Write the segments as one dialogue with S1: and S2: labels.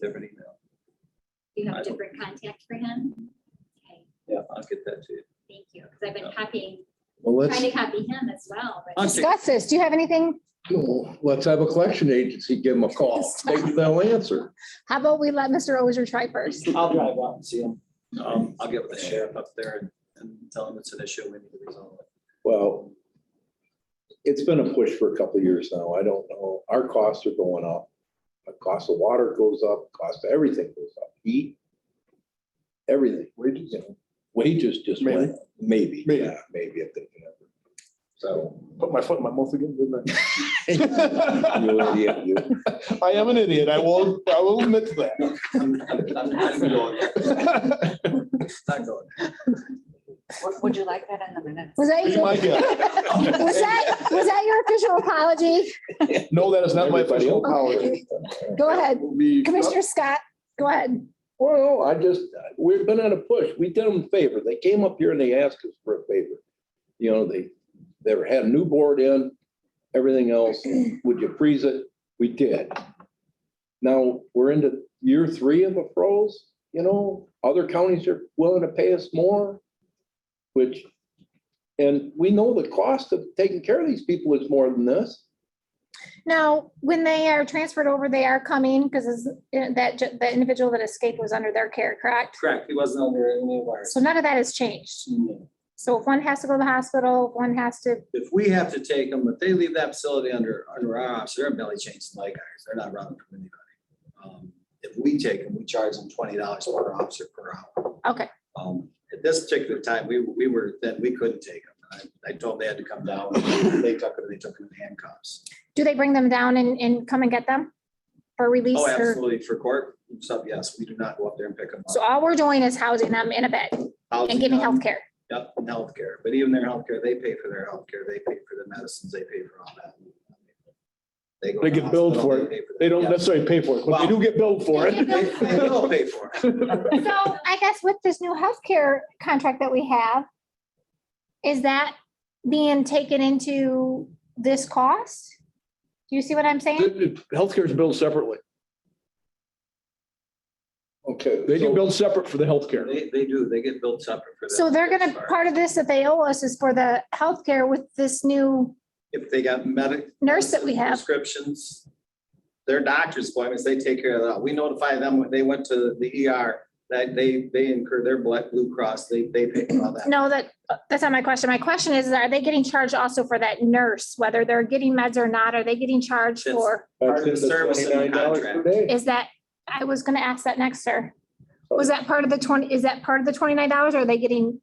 S1: different email.
S2: You have
S1: I
S2: a
S1: don't-
S2: different contact for him? Okay,
S1: Yeah, I'll get that to you.
S2: thank you, because I've been copying,
S3: Well, let's,
S2: trying to copy him as well, but.
S1: I'm sick.
S4: Discuss this. Do you have anything?
S3: let's have a collection agency give them a call. Maybe they'll answer.
S4: How about we let Mr. Ozier try first?
S5: I'll drive out and see him.
S1: Um, I'll get with the sheriff up there and, and tell him it's an issue we need to resolve. it.
S3: Well, it's been a push for a couple of years now. I don't know. Our costs are going up. The cost of water goes up, cost of everything goes up, heat, everything. Wages. you know, Wages just went, up. maybe,
S6: Maybe.
S3: yeah, maybe if they can ever. So.
S6: Put my foot in my mouth again, didn't
S3: you're
S6: I?
S3: an idiot, you.
S6: I am an idiot. I will, I will admit to
S1: I'm- I'm- I'm- I'm going.
S6: that.
S1: Not going.
S7: Would- Would you like that in the minutes?
S4: Was that,
S6: Be
S4: your-
S6: my
S4: was
S6: guest.
S4: that, was that your official apology?
S6: No, that is not my
S3: Everybody
S6: official
S3: else.
S6: apology.
S4: Go ahead.
S6: We-
S4: Commissioner Scott, go ahead.
S3: Well, I just, we've been on a push. We did them a favor. They came up here and they asked us for a favor. You know, they, they were- had a new board in, everything else. Would you freeze it? We did. Now, we're into year three of a froze, you know, other counties are willing to pay us more, which, and we know the cost of taking care of these people is more than this.
S4: Now, when they are transferred over, they are coming because that, ju- the individual that escaped was under their care, correct?
S5: Correct, he wasn't under any of ours.
S4: So none of that has changed. So if one has to go to the hospital, one has to,
S1: If we have to take them, if they leave that facility under, under our office, they're belly chains like ours. They're not running from anybody. Um, If we take them, we charge them twenty dollars per officer per hour.
S4: okay,
S1: Um, At this particular time, we, we were, then we couldn't take them. I, I told them they had to come down. They took them, they took them in handcuffs.
S4: do they bring them down and, and come and get them for release?
S1: Oh,
S4: or-
S1: absolutely. For court, so yes, we do not go up there and pick them
S4: So
S1: up.
S4: all we're doing is housing them in a bed and giving
S1: Housing, um,
S4: healthcare.
S1: Yep, and healthcare, but even their healthcare, they pay for their healthcare, they pay for the medicines, they pay for all that. go
S6: They
S1: to
S6: get billed
S1: hospital,
S6: for it.
S1: pay for that.
S6: They don't
S1: Yeah.
S6: necessarily pay for it, but they do get billed for
S4: They
S6: it.
S4: get
S1: They they will pay for it.
S4: So I guess with this new healthcare contract that we have, is that being taken into this cost? Do you see what I'm saying?
S6: Healthcare is billed separately.
S3: Okay.
S6: They get billed separate for the healthcare.
S1: They, they do, they get billed separate for that.
S4: So they're gonna, part of this that they owe us is for the healthcare with this new
S1: If they got medic.
S4: nurse that we have.
S1: Prescriptions, their doctor's appointments, they take care of that. We notify them when they went to the ER, that they, they incur their Black Blue Cross, they, they pay for all that.
S4: No, that, that's not my question. My question is, are they getting charged also for that nurse, whether they're getting meds or not? Are they getting charged
S1: Yes.
S4: for?
S1: Part of the service in the
S3: $29 per
S1: contract.
S3: day.
S4: Is that, I was gonna ask that next, sir. Was that part of the twenty, is that part of the twenty-nine dollars? Are they getting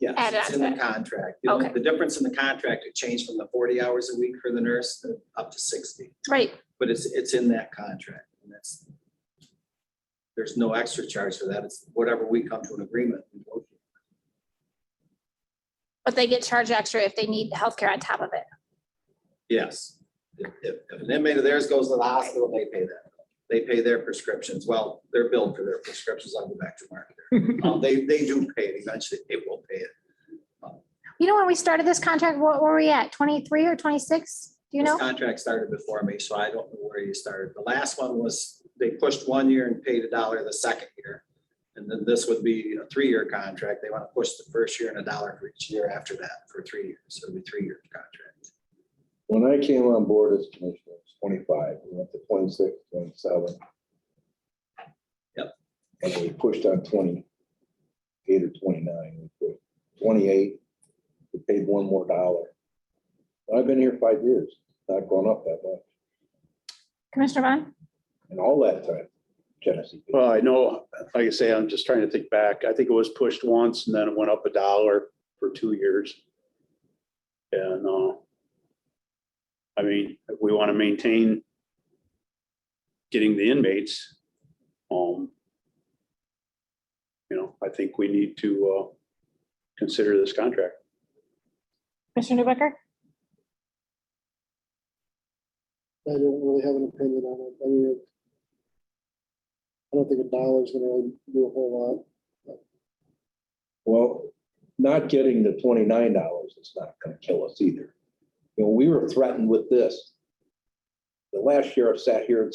S1: Yes,
S4: Add
S1: it's
S4: up
S1: in the
S4: that.
S1: contract. The only-
S4: Okay.
S1: The difference in the contract, it changed from the forty hours a week for the nurse to up to sixty,
S4: Right,
S1: but it's, it's in that contract. and that's There's no extra charge for that. It's whatever we come to an agreement. we go to.
S4: but they get charged extra if they need healthcare on top of it.
S1: Yes. If, if if an inmate of theirs goes to the hospital, they pay that. They pay their prescriptions. Well, they're billed for their prescriptions. I'll go back to Mark. there. Um, They, they do pay it. Eventually, they will pay it.
S4: You know, when we started this contract, what were we at? Twenty-three or twenty-six? Do you
S1: This
S4: know?
S1: contract started before me, so I don't know where you started. The last one was, they pushed one year and paid a dollar the second year. And then this would be a three-year contract. They want to push the first year and a dollar for each year after that for three years. So it'd be three-year contract.
S3: When I came on board as commissioner, it was twenty-five, we went to twenty-six, twenty-seven.
S1: Yep.
S3: And we pushed on twenty-eight or twenty-nine, we pushed twenty-eight, we paid one more dollar. I've been here five years, not gone up that much,
S4: Commissioner Vaughn?
S3: and all that time, Genesee. people.
S8: Well, I know, like I say, I'm just trying to think back. I think it was pushed once and then it went up a dollar for two years. And, uh, I mean, if we want to maintain getting the inmates, um, you know, I think we need to, uh, consider this contract.
S4: Commissioner Newbecker?
S9: I don't really have an opinion on it. I mean, it- I don't think a dollar's gonna really do a whole
S3: Well, not getting the twenty-nine dollars is not gonna kill us either. You know, we were threatened with this. The last sheriff sat here and